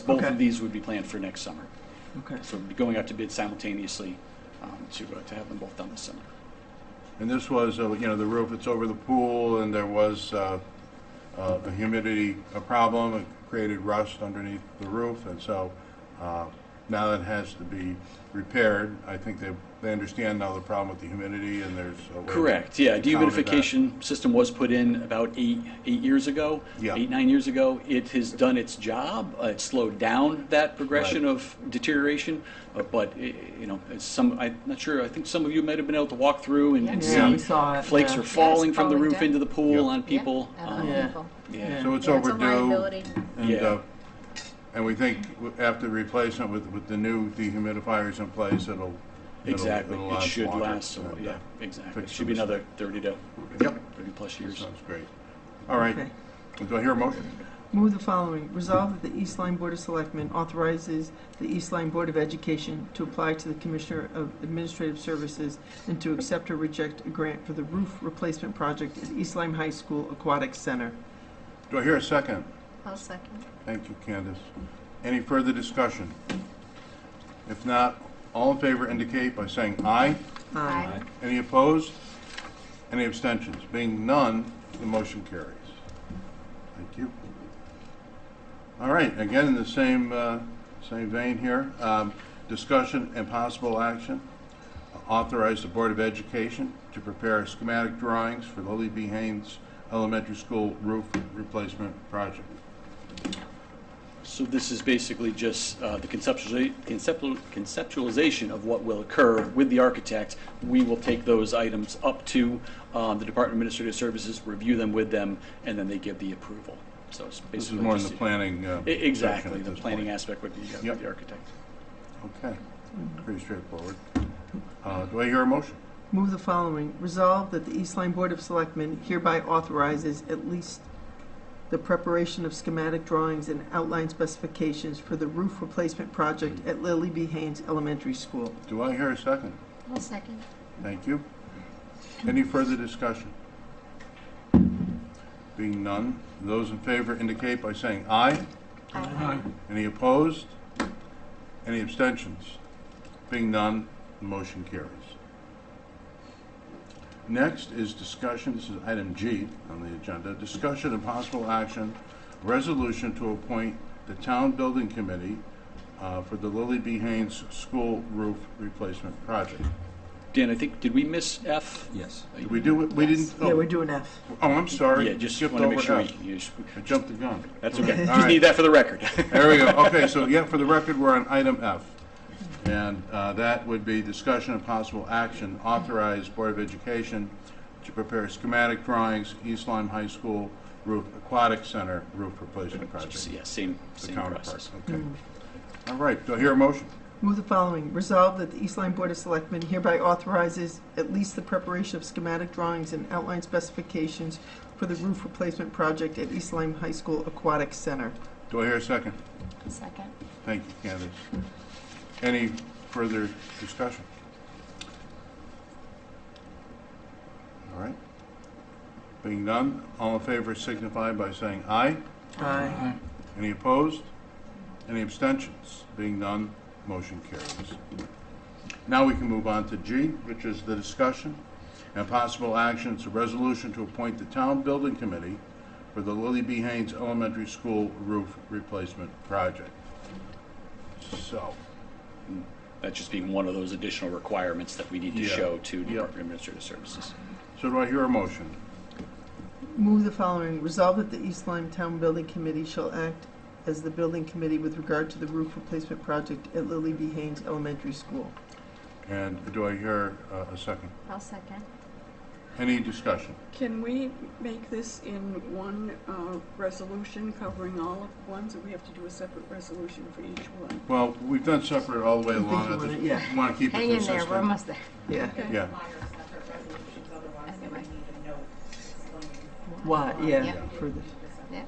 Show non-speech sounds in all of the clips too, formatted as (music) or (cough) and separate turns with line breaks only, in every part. Both
Okay.
of these would be planned for next summer.
Okay.
So we'd be going out to bid simultaneously um, to, uh, to have them both done this summer.
And this was, uh, you know, the roof that's over the pool, and there was uh, uh, a humidity a problem, it created rust underneath the roof, and so uh, now it has to be repaired. I think they, they understand now the problem with the humidity, and there's a way to
Correct, yeah.
counter that.
Dehumidification system was put in about eight, eight years ago.
Yeah.
Eight, nine years ago. It has done its job. Uh, It slowed down that progression
Right.
of deterioration. uh, But, i- you know, it's some, I'm not sure, I think some of you might have been able to walk through and and
Yeah.
see.
Yeah, we saw it,
Flakes
yeah.
are falling
Yes,
from the
falling
roof
down.
into the pool
Yeah.
on people.
Yeah,
Um,
on
Yeah.
people.
Yeah.
So it's
Yeah, it's a
overdue.
liability.
And,
Yeah.
uh, and we think w- after replacement with, with the new dehumidifiers in place, it'll. it'll-
Exactly.
it'll
It should
longer.
last, a while.
And, uh,
yeah, exactly. It
fix
should be
some
another 30 to
Yep,
30-plus years.
sounds great. All right,
Okay.
do I hear a motion?
Move the following. Resolve that the East Line Board of Selectmen authorizes the East Line Board of Education to apply to the Commissioner of Administrative Services and to accept or reject a grant for the roof replacement project at East Lyme High School Aquatic Center.
Do I hear a second?
I'll second.
Thank you, Candace. Any further discussion? If not, all in favor indicate by saying aye.
Aye.
Any opposed? Any abstentions? Being none, the motion carries. Thank you. All right, again, in the same, uh, same vein here, um, discussion and possible action. Authorize the Board of Education to prepare schematic drawings for Lily B. Haynes Elementary School roof replacement project.
So this is basically just uh, the conceptualiza- conceptual- conceptualization of what will occur with the architect. We will take those items up to um, the Department of Administrative Services, review them with them, and then they give the approval. So it's basically
This is more in the
just-
planning. uh,
E- Exactly,
section at
the
this
planning
point.
aspect with the uh,
Yep.
with the architect.
Okay, pretty straightforward. Uh, Do I hear a motion?
Move the following. Resolve that the East Line Board of Selectmen hereby authorizes at least the preparation of schematic drawings and outline specifications for the roof replacement project at Lily B. Haynes Elementary School.
Do I hear a second?
I'll second.
Thank you. Any further discussion? Being none, those in favor indicate by saying aye.
Aye.
Any opposed? Any abstentions? Being none, the motion carries. Next is discussion, this is item G on the agenda, discussion and possible action, resolution to appoint the Town Building Committee uh, for the Lily B. Haynes School Roof Replacement Project.
Dan, I think, did we miss F?
Yes.
Did we do, it? we didn't?
Yeah, we're doing F.
Oh, I'm sorry.
Yeah, just
Skipped
want to make
over
sure.
F.
we- you just-
I jumped the gun.
That's okay. (laughs)
All
Just
right.
need that for the record.
There we go. Okay, so yeah, for the record, we're on item F. And uh, that would be discussion of possible action, authorize Board of Education to prepare schematic drawings, East Lyme High School roof, aquatic center roof replacement project.
Yeah, same,
The
same
counterpart,
process.
okay. All right, do I hear a motion?
Move the following. Resolve that the East Line Board of Selectmen hereby authorizes at least the preparation of schematic drawings and outline specifications for the roof replacement project at East Lyme High School Aquatic Center.
Do I hear a second?
Second.
Thank you, Candace. Any further discussion? All right. Being none, all in favor signify by saying aye.
Aye.
Any opposed? Any abstentions? Being none, motion carries. Now we can move on to G, which is the discussion and possible action. It's a resolution to appoint the Town Building Committee for the Lily B. Haynes Elementary School Roof Replacement Project. So,
That just being one of those additional requirements that we need to
Yeah.
show to
Yeah.
Department of Administrative Services.
so do I hear a motion?
Move the following. Resolve that the East Lyme Town Building Committee shall act as the building committee with regard to the roof replacement project at Lily B. Haynes Elementary School.
And do I hear uh, a second?
I'll second.
Any discussion?
Can we make this in one uh, resolution covering all of ones, or we have to do a separate resolution for each one?
Well, we've done separate all the way
I think
along.
you
I
wanna-
just
yeah.
want to keep it
Hang in there,
consistent.
we're almost there.
Yeah.
Okay.
Yeah,
require separate resolutions, otherwise they would need a note explaining.
Why, yeah,
Yeah.
for this.
Yeah.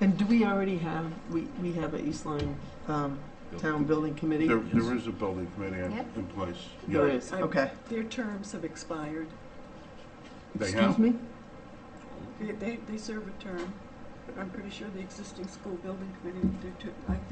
And do we already have, we, we have an East Lyme, um, Town Building Committee?
there there is a building committee in
Yep.
in place.
There
Yeah.
is, okay.
Their terms have expired.
They
Excuse
have?
me?
They, they, they serve a term. I'm pretty sure the existing school building committee, did too- I